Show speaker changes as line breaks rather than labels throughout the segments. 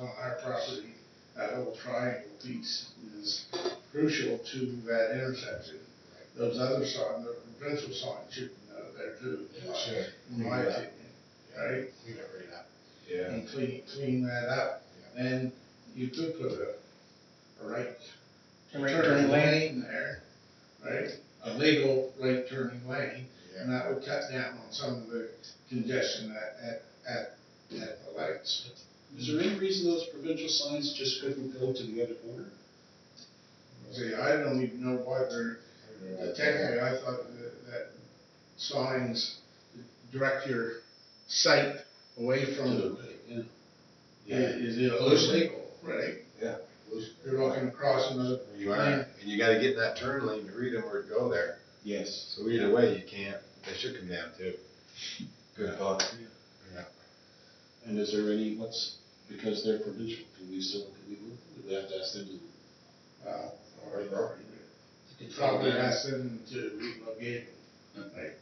on our property, that whole triangle piece is crucial to that intersection. Those other signs, the provincial signs should be out there too, in my-
Sure.
in my opinion, right?
Clean it right up.
and clean, clean that up, and you could put a, a right turning lane there, right? A legal right turning lane, and that would cut down on some of the congestion at, at, at, at the lights.
Is there any reason those provincial signs just couldn't go to the other corner?
See, I don't even know why they're, Uh, technically, I thought that, that signs direct your sight away from,
Yeah.
is, is illegal, right? You're looking across another
You are, and you gotta get in that turn lane to read them or go there.
Yes.
So either way, you can't, they should come down too.
Good thought.
Yeah.
And is there any, what's, because they're provincial, can we still, can we move, do we have to ask them to?
Uh, or property. Probably ask them to relocate, like,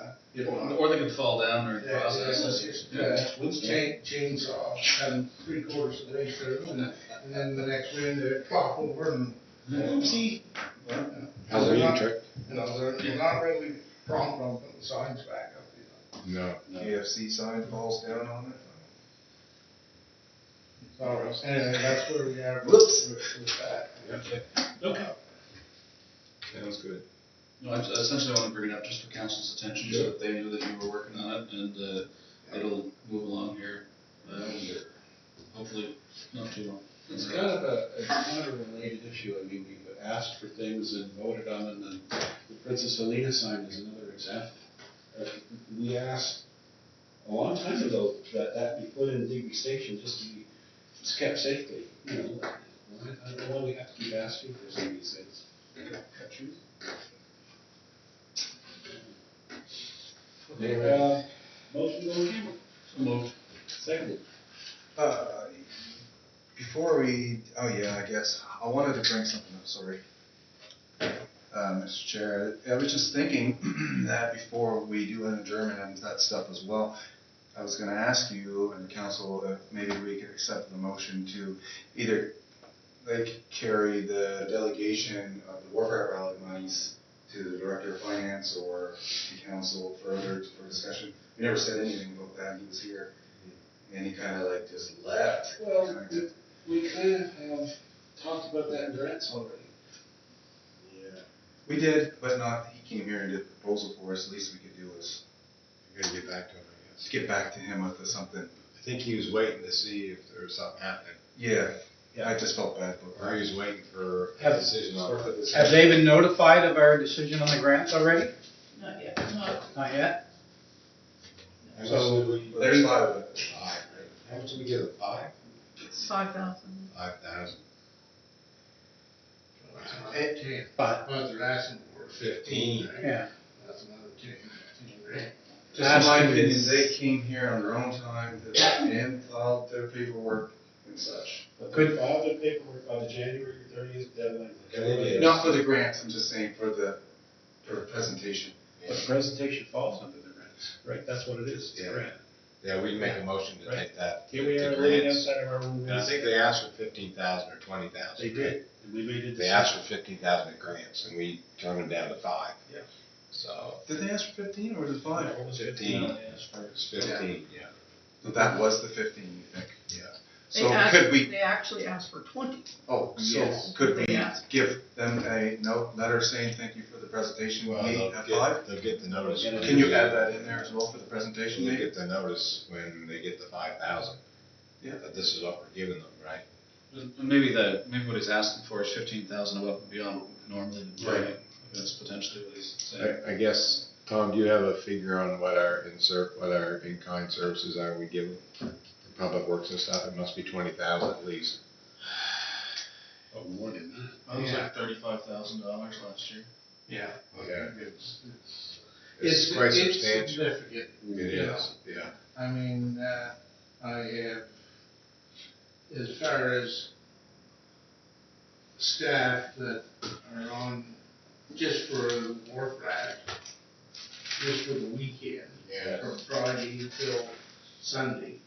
uh, you know.
Or they could fall down during the
Yeah,
process.
yeah, yeah, chain- Chainsaw, cut 'em three quarters of the way through, and and then the next wind, they flop over and,
Oopsie.
How's it
Halloween
not-
trick?
you know, they're, they're not really prompt on putting signs back up, you know.
No.
KFC sign falls down on it.
So, anyway, that's where we are with,
Whoops.
with with that.
Okay.
Sounds good.
No, I essentially want to bring it up just for council's attention, so that they knew that you were working on it, and, uh, it'll move along here, uh, hopefully, not too long.
It's kind of a, it's kind of a related issue, I mean, we've asked for things and voted on, and then the Princess Helena sign is another example. Uh, We asked a long time ago that that be put in Digby Station just to be, it's kept safely, you know? Why- I don't know why we have to keep asking for some of these things. Okay, uh, motion to go in camera,
So moved.
seconded.
Uh, Before we, oh yeah, I guess, I wanted to bring something up, sorry. Uh, Mr. Chair, I was just thinking that before we do an adjournment and that stuff as well, I was gonna ask you and the council
uh,
if maybe we could accept the motion to either, like, carry the delegation of the Warcraft rally monies to the Director of Finance or the council further for discussion. We never said anything about that, he was here, and he kinda like just left.
Well, we, we kind of have
um,
talked about that in grants already.
Yeah.
We did, but not, he came here and did a proposal for us, the least we could do is
We gotta get back to him, I guess.
get back to him with something.
I think he was waiting to see if there was something happening,
Yeah, I just felt bad,
or
but.
he was waiting for a decision on. it.
Have they been notified of our decision on the grants already?
Not yet, no.
Not yet?
So,
There's
There's five of it.
five, right? How much did we give it, five?
It's five thousand.
Five thousand.
Eight, ten,
But,
but they're asking for fifteen, right?
yeah.
That's another ten, fifteen, right?
Just in my
Asking
opinion,
is-
they came here on their own time to- and filed their paperwork and such.
But
Could-
they filed their paperwork by the January thirtieth deadline.
And they did.
Not for the grants, I'm just saying for the, for the presentation.
But the presentation falls under the grants, right, that's what it is, it's a
Yeah.
grant.
Yeah, we can make a motion to take that.
Here we
to
are living
grants.
outside of our own
And I
rules.
think they asked for fifteen thousand or twenty thousand.
They did, and we made a
They
decision.
asked for fifteen thousand in grants, and we turned them down to five.
Yeah.
So,
Did they ask for fifteen or was it five?
What was it?
Fifteen.
No, they asked for-
it's fifteen, yeah.
So that was the fifteen, you think?
Yeah.
They
So
asked-
could we
They actually asked for twenty.
Oh, so
Yes.
could we
Yeah.
give them a note, letter saying thank you for the presentation we
Well,
made
they'll
at five?
get, they'll get the notice. when
Can you
they-
add that in there as well for the presentation
They'll
maybe?
get the notice when they get the five thousand.
Yeah.
That this is what we're giving them, right?
And and maybe the, maybe what he's asking for is fifteen thousand above and beyond what we've normally been doing.
Right.
That's potentially what he's saying.
I, I guess, Tom, do you have a figure on what our insert, what our in-kind services are we giving? for Public works and stuff, it must be twenty thousand at least.
Oh, more than that.
I was like thirty-five thousand dollars last year.
Yeah.
Yeah.
It's, it's.
It's quite
it's
substantial.
Significant.
It is, yeah.
I mean, uh, I have, as far as staff that are on just for the wharf rat, just for the weekend,
Yeah.
from Friday till Sunday,